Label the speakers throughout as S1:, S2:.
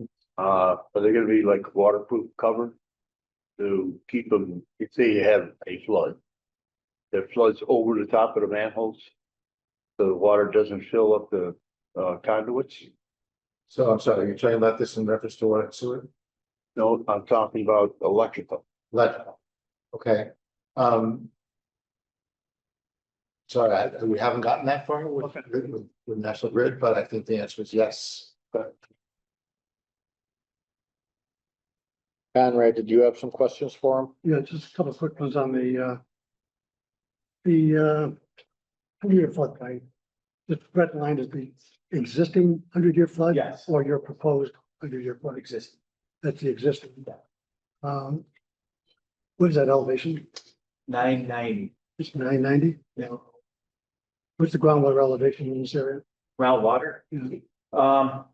S1: Uh, are they gonna be like waterproof cover? To keep them, if say you have a flood. That floods over the top of the manholes. So the water doesn't fill up the uh conduits.
S2: So I'm sorry, you're talking about this in reference to what, sewer,
S1: No, I'm talking about electrical.
S2: electrical? Okay, um. Sorry, I- we haven't gotten that far with,
S1: Okay.
S2: with, with National Grid, but I think the answer is yes.
S3: Conrad, did you have some questions for him?
S4: Yeah, just a couple of quick ones on the, uh, the, uh, hundred-year flood plain. The red line is the existing hundred-year flood?
S5: Yes.
S4: Or your proposed hundred-year flood?
S5: Existing.
S4: That's the existing. Um, what is that elevation?
S5: Nine ninety,
S4: It's nine ninety?
S5: you know,
S4: What's the groundwater elevation in this area?
S5: groundwater.
S4: Yeah.
S5: Um.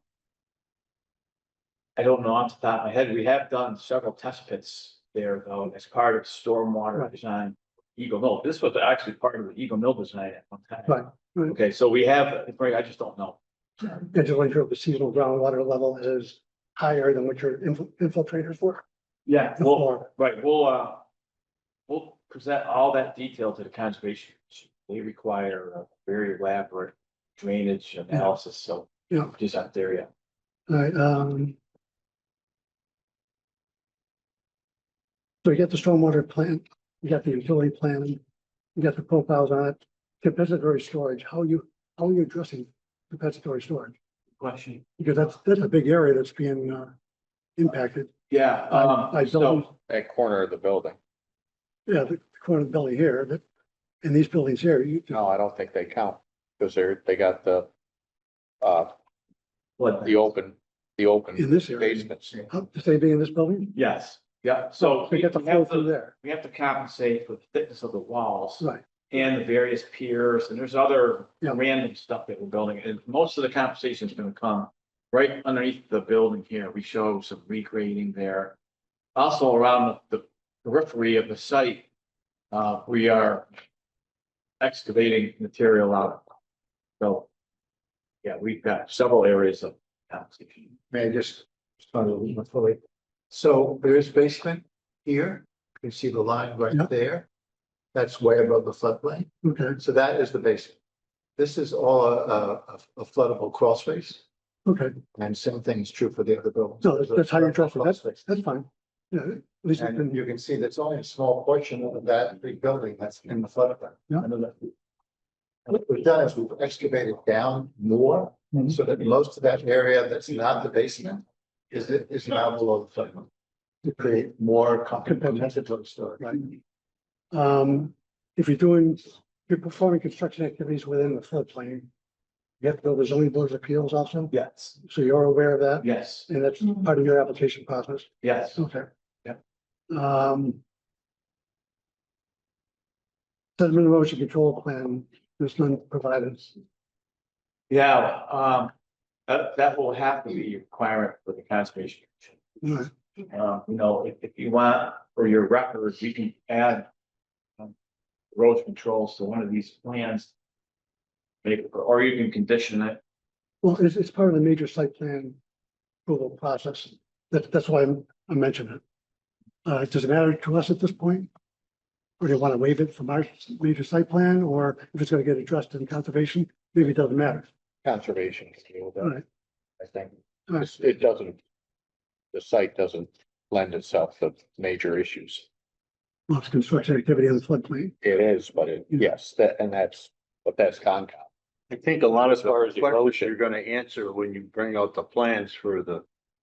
S5: I don't know off the top of my head. We have done several test pits there though, as part of stormwater
S4: Right.
S5: design. Eagle Mill, this was actually part of the Eagle Mill design at one time.
S4: Right, right.
S5: Okay, so we have, Greg, I just don't know.
S4: I just want to know if the seasonal groundwater level is higher than what your infil- infiltrators were.
S5: Yeah.
S4: in
S5: Well,
S4: Florida.
S5: right, we'll, uh. We'll present all that detail to the conservation. Commission. They require a very elaborate drainage analysis, so.
S4: Yeah.
S5: Just not there yet.
S4: Alright, um. So you got the stormwater plan, you got the utility plan, you got the profiles on it, compensatory storage, how you, how are you addressing compensatory storage?
S5: Question.
S4: Because that's, that's a big area that's being, uh, impacted.
S5: Yeah,
S4: I- I
S5: um, so.
S4: don't-
S3: That corner of the building.
S4: Yeah, the corner of the building here, that, and these buildings here, you,
S3: No, I don't think they count because they're, they got the, uh,
S5: What?
S3: the open, the
S4: in
S3: open
S4: this area,
S3: basements.
S4: how, to say being in this building?
S5: Yes, yeah, so.
S4: You
S5: we
S4: get the
S5: we have
S4: flow through
S5: to-
S4: there,
S5: We have to compensate for the thickness of the walls
S4: right,
S5: and the various piers, and there's other
S4: Yeah.
S5: random stuff that we're building, and most of the compensation is gonna come right underneath the building here, we show some regrading there. Also around the periphery of the site, uh, we are excavating material out. So, yeah, we've got several areas of compensation.
S2: May I just respond a little more fully? So there is basement here, you can see the line
S4: Yeah.
S2: right there. That's way above the floodplain,
S4: okay,
S2: so that is the basement. This is all a, a- a floodable crawl space,
S4: okay,
S2: and same thing is true for the other buildings.
S4: No, that's- that's how you address it.
S2: Crawl space.
S4: that's fine. Yeah, at least it's
S2: And
S4: been,
S2: you can see that's only a small portion of that big building that's in the floodplain.
S4: Yeah.
S2: What we've done is we've excavated down more,
S4: Mm-hmm.
S5: Mhm.
S2: so that most of that area that's not the basement is, is now below the floodplain. To create more compensatory storage.
S4: right. Um, if you're doing, if you're performing construction activities within the floodplain, you have to go to the zoning board of appeals also,
S5: Yes.
S4: so you're aware of that,
S5: Yes,
S4: and that's part of your application process,
S5: yes.
S4: okay?
S5: Yeah.
S4: Um. Sediment erosion control plan, there's none provided,
S5: Yeah, um, that, that will have to be a requirement for the conservation. Commission.
S4: Alright,
S5: Um, you know, if, if you want, for your records, you can add. um, Road controls to one of these plans. Maybe, or you can condition it.
S4: well, it's, it's part of the major site plan approval process, that, that's why I'm- I mentioned it. Uh, does it matter to us at this point? Or do you want to waive it from our major site plan, or if it's going to get addressed in conservation, maybe it doesn't matter.
S3: Conservation can deal with
S4: All
S3: that,
S4: right,
S3: I think.
S4: all right.
S3: It's- It doesn't, the site doesn't lend itself to major issues.
S4: Lots of construction activity in the floodplain.
S3: It is, but it, yes, that, and that's, but that's Concom.
S1: I think a lot
S3: As
S1: of
S3: far
S1: our
S3: as the motion.
S1: questions you're gonna answer when you bring out the plans for the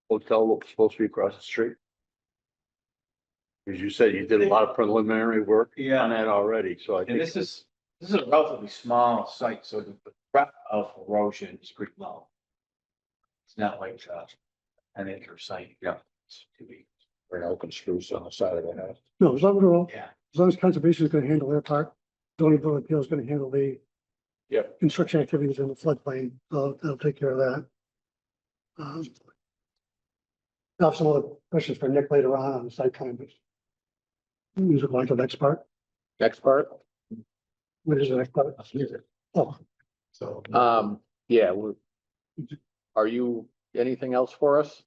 S1: hotel that was supposed to be across the street. As you said, you did a lot of preliminary work on that already, so I
S5: And
S1: think.
S5: this is, this is a relatively small site, so the breadth of erosion is pretty low. It's not like, uh, an acre site.
S1: Yeah.
S5: It's too big.
S3: Or an open spruce on the side of the house.
S4: No, as long as,
S5: Yeah.
S4: as long as conservation is going to handle their part, zoning board of appeals is going to handle the
S3: Yep.
S4: construction activities in the floodplain, so they'll take care of that. Um, I'll have some other questions for Nick later on on the site plan, but use it like the next part.
S3: Next part?
S4: What is the next part? Oh,
S2: So. Mm-hmm.
S3: Um, yeah, we- are you, anything else for us?